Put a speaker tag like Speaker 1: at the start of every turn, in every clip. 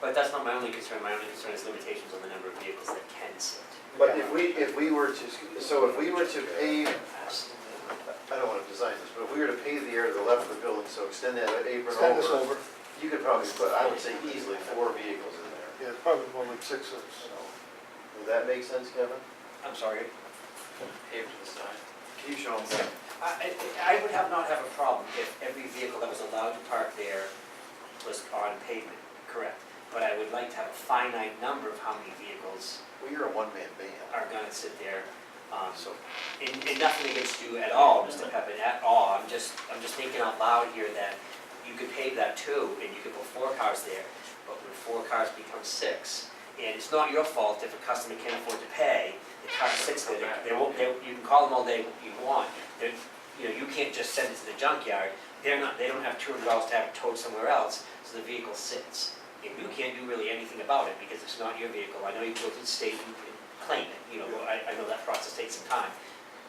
Speaker 1: But that's not my only concern, my only concern is limitations on the number of vehicles that can sit.
Speaker 2: But if we, if we were to, so if we were to pave, I don't want to design this, but if we were to pave the area to the left of the building, so extend that apron
Speaker 3: Extend this
Speaker 2: over,
Speaker 3: over,
Speaker 2: you could probably put, I would say easily four vehicles in there.
Speaker 3: yeah, it's probably more like six of
Speaker 2: So,
Speaker 3: us.
Speaker 2: Would that make sense, Kevin?
Speaker 4: I'm sorry. Paved to the side.
Speaker 2: Can you show them?
Speaker 1: I, I I would have not have a problem if every vehicle that was allowed to park there was on pavement, correct? But I would like to have a finite number of how many vehicles
Speaker 2: Well, you're a one-man band,
Speaker 1: are gonna sit there. Um,
Speaker 2: so
Speaker 1: And, and nothing against you at all, Mr. Peppin, at all, I'm just, I'm just thinking out loud here that you could pave that too, and you could put four cars there, but when four cars become six, and it's not your fault if a customer can't afford to pay, the car sits there, they- they won't, they, you can call them all day you want, they're, you know, you can't just send it to the junkyard, they're not, they don't have two hundred dollars to have it towed somewhere else, so the vehicle sits. And you can't do really anything about it, because it's not your vehicle, I know you go to the state and and claim it, you know, I, I know that process takes some time,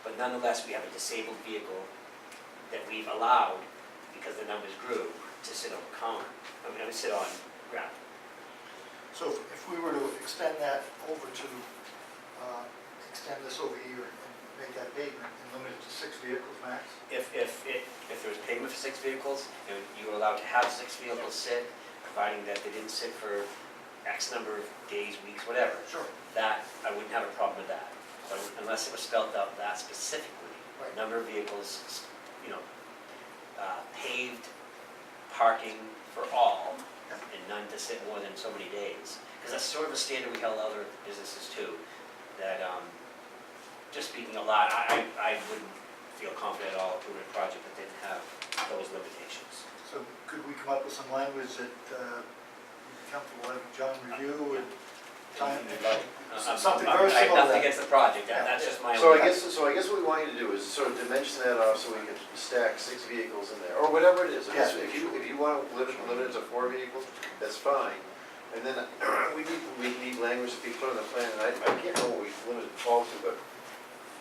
Speaker 1: but nonetheless, we have a disabled vehicle that we've allowed, because the numbers grew, to sit on common, I mean, I mean, sit on ground.
Speaker 3: So if if we were to extend that over to, uh, extend this over here and make that pavement and limit it to six vehicles max?
Speaker 1: If, if, if, if there was payment for six vehicles, you know, you were allowed to have six vehicles sit, providing that they didn't sit for X number of days, weeks, whatever.
Speaker 3: Sure.
Speaker 1: That, I wouldn't have a problem with that, but unless it was spelled out that specifically.
Speaker 3: Right.
Speaker 1: Number of vehicles, you know, uh, paved parking for all, and none to sit more than so many days. Because that's sort of a standard we held other businesses to, that, um, just speaking a lot, I, I I wouldn't feel confident at all approving a project that didn't have those limitations.
Speaker 3: So could we come up with some language that uh, you'd be comfortable having John review and time?
Speaker 1: Anything you'd like.
Speaker 3: S- Something
Speaker 1: I'm-
Speaker 3: very similar
Speaker 1: I'm- Um, I have
Speaker 3: to
Speaker 1: nothing
Speaker 3: that.
Speaker 1: against the project, that- that's just my own.
Speaker 2: So I guess, so I guess what we want you to do is sort of dimension that off so we can stack six vehicles in there, or whatever it is. If it's- If you, if you want to limit, limit it to four vehicles, that's fine. And then we need, we need language to be put on the plan, and I, I can't know what we limit it all to, but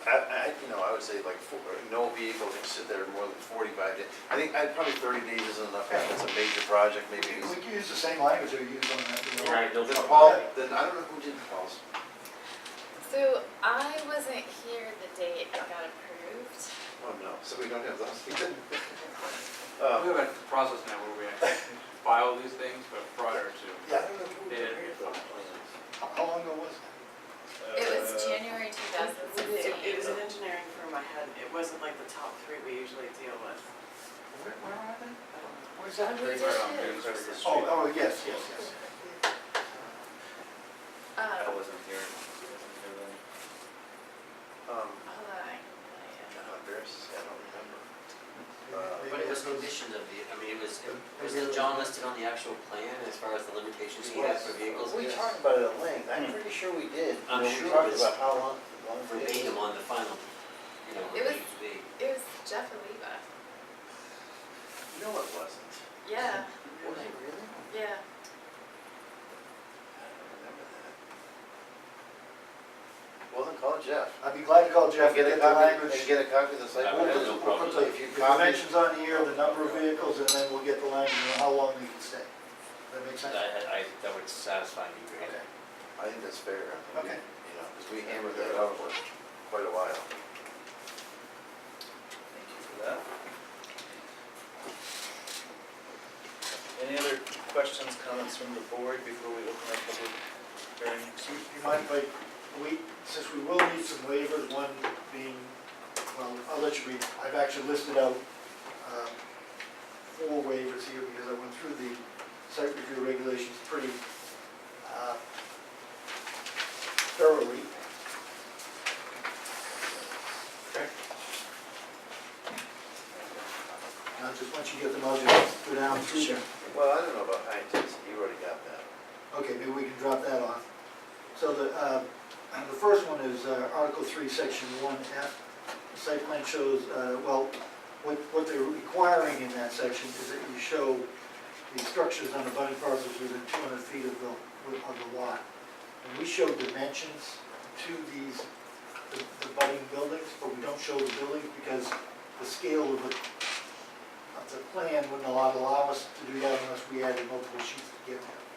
Speaker 2: I, I, you know, I would say like four, no vehicle can sit there more than forty-five days. I think, I, probably thirty days isn't enough, if it's a major project, maybe.
Speaker 3: We
Speaker 2: it's-
Speaker 3: could use the same language that we used on that. you know.
Speaker 1: Right, no
Speaker 2: Then
Speaker 1: problem.
Speaker 2: Paul, then I don't know who did Paul's.
Speaker 5: So I wasn't here the day it got approved.
Speaker 2: Oh, no, so we don't have those.
Speaker 4: Oh, We
Speaker 2: Uh,
Speaker 4: have a process now where we actually file these things, but prior to,
Speaker 3: Yeah.
Speaker 4: they didn't get filed.
Speaker 3: How how long ago was that?
Speaker 4: uh,
Speaker 5: It was January
Speaker 6: It Uh,
Speaker 5: 2016.
Speaker 6: it was an engineering firm I had, it wasn't like the top three we usually deal with.
Speaker 3: Where where are they?
Speaker 6: I don't know.
Speaker 3: Where's that?
Speaker 5: We
Speaker 4: Right
Speaker 5: did
Speaker 4: on
Speaker 5: it.
Speaker 4: Dune, across the street.
Speaker 3: Oh, oh, yes, yes, yes.
Speaker 5: Uh,
Speaker 4: I
Speaker 5: hold on.
Speaker 4: wasn't here. I
Speaker 2: um,
Speaker 5: I can
Speaker 2: I'm
Speaker 5: tell
Speaker 2: embarrassed to say I don't remember.
Speaker 3: Maybe
Speaker 1: But it was
Speaker 3: that's-
Speaker 1: conditioned of the, I mean, it was, was it John listed on the actual plan as far as the limitations he had for vehicles?
Speaker 2: We talked about it at length, I'm pretty sure we did.
Speaker 1: I'm
Speaker 2: When we
Speaker 1: sure
Speaker 2: talked
Speaker 1: it's-
Speaker 2: about how long, long it is.
Speaker 1: Verbatim on the final, you know,
Speaker 5: It
Speaker 1: what
Speaker 5: was-
Speaker 1: it used to be.
Speaker 5: you. It was Jeff Oliva.
Speaker 2: No, it wasn't.
Speaker 5: Yeah,
Speaker 2: Was it really?
Speaker 5: yeah.
Speaker 2: I don't remember that. Well, then call Jeff.
Speaker 3: I'd be glad to call Jeff,
Speaker 2: And
Speaker 3: get
Speaker 2: get a
Speaker 3: the
Speaker 2: copy,
Speaker 3: language.
Speaker 2: and get a copy of the site.
Speaker 3: We'll
Speaker 1: I
Speaker 2: plan.
Speaker 1: have
Speaker 3: put-
Speaker 1: no
Speaker 3: we'll
Speaker 1: problem
Speaker 3: put
Speaker 1: with
Speaker 3: the-
Speaker 2: that.
Speaker 3: the dimensions on here, the number of vehicles, and then we'll get the language on how long they can stay. Does that make sense?
Speaker 1: That, I, that would satisfy me greatly.
Speaker 3: Okay.
Speaker 2: I think that's fair. I think we-
Speaker 3: Okay.
Speaker 2: You know, because we hammered that out for quite a while.
Speaker 4: Thank you for that. Any other questions, comments from the board before we open up public hearing?
Speaker 3: So you you mind if I, we, since we will need some waivers, one being, well, I'll let you read, I've actually listed out um, four waivers here because I went through the site review regulations pretty uh, thoroughly. Now, just once you get them, I'll just go down through them.
Speaker 2: Well, I don't know about high intensity, you already got that.
Speaker 3: Okay, maybe we can drop that off. So the, uh, the first one is uh, Article 3, Section 1F. The Site plan shows, uh, well, what, what they're requiring in that section is that you show the structures on abutting parcels within 200 feet of the, of the lot. And we show dimensions to these, the the abutting buildings, but we don't show the buildings because the scale of the, of the plan wouldn't allow, allow us to do that unless we added multiple sheets to get there.